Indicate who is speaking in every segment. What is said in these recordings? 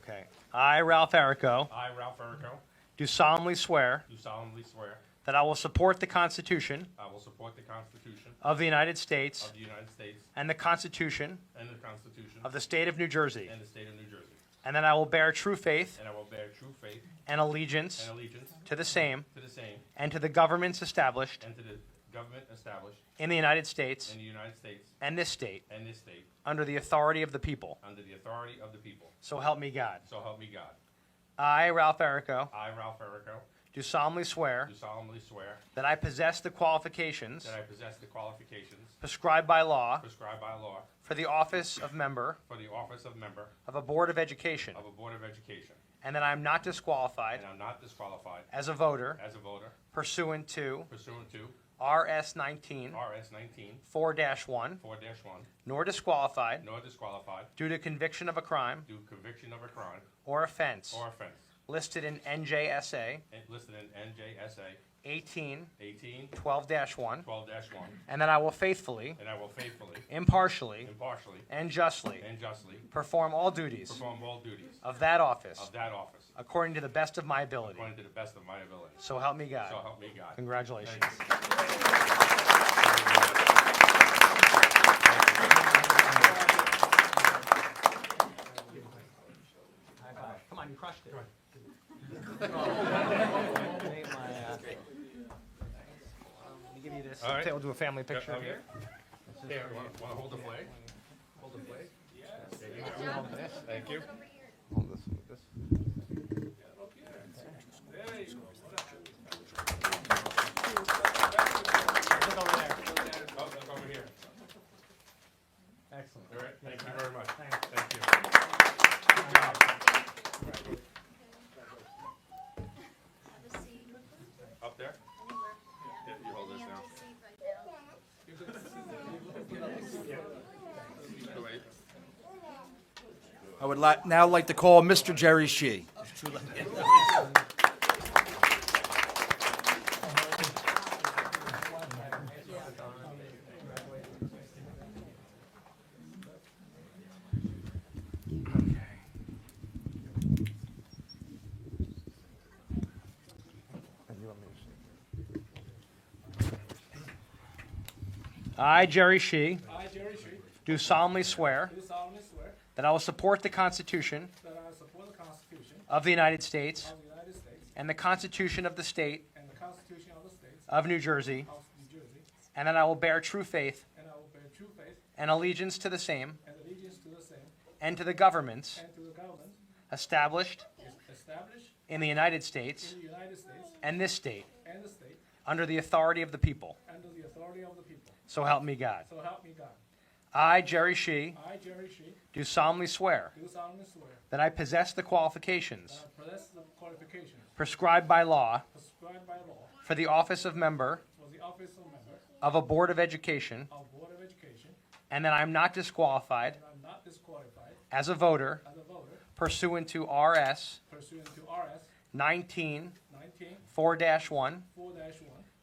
Speaker 1: I, Ralph Errico,
Speaker 2: I, Ralph Errico,
Speaker 1: do solemnly swear
Speaker 2: do solemnly swear
Speaker 1: that I will support the Constitution
Speaker 2: I will support the Constitution
Speaker 1: of the United States
Speaker 2: of the United States
Speaker 1: and the Constitution
Speaker 2: and the Constitution
Speaker 1: of the State of New Jersey,
Speaker 2: and the State of New Jersey,
Speaker 1: and that I will bear true faith
Speaker 2: and I will bear true faith
Speaker 1: and allegiance
Speaker 2: and allegiance
Speaker 1: to the same
Speaker 2: to the same
Speaker 1: and to the governments established
Speaker 2: and to the government established
Speaker 1: in the United States
Speaker 2: in the United States
Speaker 1: and this state
Speaker 2: and this state
Speaker 1: under the authority of the people.
Speaker 2: under the authority of the people.
Speaker 1: So help me God.
Speaker 2: So help me God.
Speaker 1: I, Ralph Errico,
Speaker 2: I, Ralph Errico,
Speaker 1: do solemnly swear
Speaker 2: do solemnly swear
Speaker 1: that I possess the qualifications
Speaker 2: that I possess the qualifications
Speaker 1: prescribed by law
Speaker 2: prescribed by law
Speaker 1: for the office of member
Speaker 2: for the office of member
Speaker 1: of a Board of Education,
Speaker 2: of a Board of Education,
Speaker 1: and that I am not disqualified
Speaker 2: and I'm not disqualified
Speaker 1: as a voter
Speaker 2: as a voter
Speaker 1: pursuant to
Speaker 2: pursuant to
Speaker 1: RS 19
Speaker 2: RS 19
Speaker 1: 4-1,
Speaker 2: 4-1,
Speaker 1: nor disqualified
Speaker 2: nor disqualified
Speaker 1: due to conviction of a crime
Speaker 2: due to conviction of a crime
Speaker 1: or offense
Speaker 2: or offense
Speaker 1: listed in NJSA
Speaker 2: and listed in NJSA
Speaker 1: 18
Speaker 2: 18
Speaker 1: 12-1,
Speaker 2: 12 1,
Speaker 1: and that I will faithfully,
Speaker 2: and I will faithfully,
Speaker 1: impartially,
Speaker 2: impartially,
Speaker 1: and justly
Speaker 2: and justly
Speaker 1: perform all duties
Speaker 2: perform all duties
Speaker 1: of that office
Speaker 2: of that office
Speaker 1: according to the best of my ability.
Speaker 2: according to the best of my ability.
Speaker 1: So help me
Speaker 2: So
Speaker 1: God.
Speaker 2: help me God.
Speaker 1: Congratulations. Come on, you crushed it. Let me give you this.
Speaker 2: All right.
Speaker 1: We'll do a family picture
Speaker 2: Okay.
Speaker 1: here.
Speaker 2: Here, want to hold the flag? Hold the flag? Yes. Thank you.
Speaker 1: Look over there.
Speaker 2: Oh, look over here.
Speaker 1: Excellent.
Speaker 2: All right, thank you very much.
Speaker 1: Thanks.
Speaker 2: Thank you. Up there? Yeah, you hold this now. Go away.
Speaker 3: I would li- now like to call Mr. Jerry Shee.
Speaker 1: I, Jerry Shee,
Speaker 4: I, Jerry Street,
Speaker 1: do solemnly swear
Speaker 4: do solemnly swear
Speaker 1: that I will support the Constitution
Speaker 4: that I will support the Constitution
Speaker 1: of the United States
Speaker 4: of the United States
Speaker 1: and the Constitution of the State
Speaker 4: and the Constitution of the State
Speaker 1: of New Jersey,
Speaker 4: of New Jersey,
Speaker 1: and that I will bear true faith
Speaker 4: and I will bear true faith
Speaker 1: and allegiance to the same
Speaker 4: and allegiance to the same
Speaker 1: and to the governments
Speaker 4: and to the government
Speaker 1: established
Speaker 4: established
Speaker 1: in the United States
Speaker 4: in the United States
Speaker 1: and this state
Speaker 4: and the state
Speaker 1: under the authority of the people.
Speaker 4: under the authority of the people.
Speaker 1: So help me God.
Speaker 4: So help me God.
Speaker 1: I, Jerry Shee,
Speaker 4: I, Jerry Street,
Speaker 1: do solemnly swear
Speaker 4: do solemnly swear
Speaker 1: that I possess the
Speaker 4: that
Speaker 1: qualifications
Speaker 4: I possess the qualifications
Speaker 1: prescribed by law
Speaker 4: prescribed by law
Speaker 1: for the office of member
Speaker 4: for the office of member
Speaker 1: of a Board of Education,
Speaker 4: of Board of Education,
Speaker 1: and that I am not disqualified
Speaker 4: and I'm not disqualified
Speaker 1: as a voter
Speaker 4: as a voter
Speaker 1: pursuant to RS
Speaker 4: pursuant to RS
Speaker 1: 19
Speaker 4: 19
Speaker 1: 4-1,
Speaker 4: 4-1,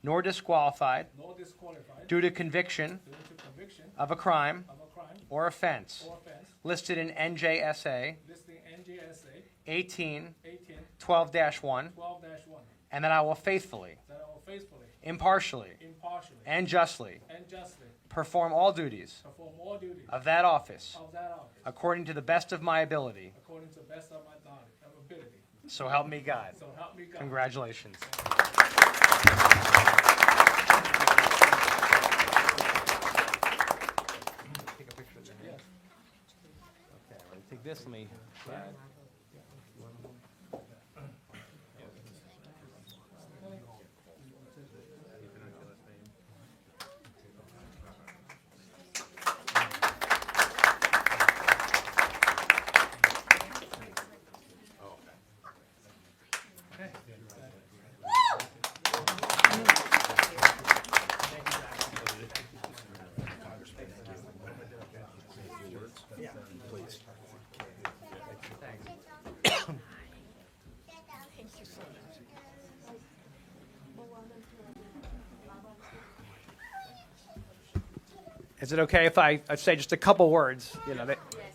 Speaker 1: nor disqualified
Speaker 4: nor disqualified due
Speaker 1: due to conviction
Speaker 4: to conviction
Speaker 1: of a crime
Speaker 4: of a crime
Speaker 1: or offense
Speaker 4: or offense
Speaker 1: listed in NJSA
Speaker 4: listing NJSA
Speaker 1: 18
Speaker 4: 18
Speaker 1: 12-1,
Speaker 4: 12-1,
Speaker 1: and that I will faithfully,
Speaker 4: that I will faithfully,
Speaker 1: impartially,
Speaker 4: impartially,
Speaker 1: and justly
Speaker 4: and justly
Speaker 1: perform all duties
Speaker 4: perform all duties
Speaker 1: of that office
Speaker 4: of that office
Speaker 1: according to the best of my ability.
Speaker 4: according to the best of my knowledge and ability.
Speaker 1: So help me God.
Speaker 4: So help me God.
Speaker 1: Congratulations. Take a picture of your hand. Okay, I'm gonna Take this, let me. Is it okay if I I say just a couple words? You know, they-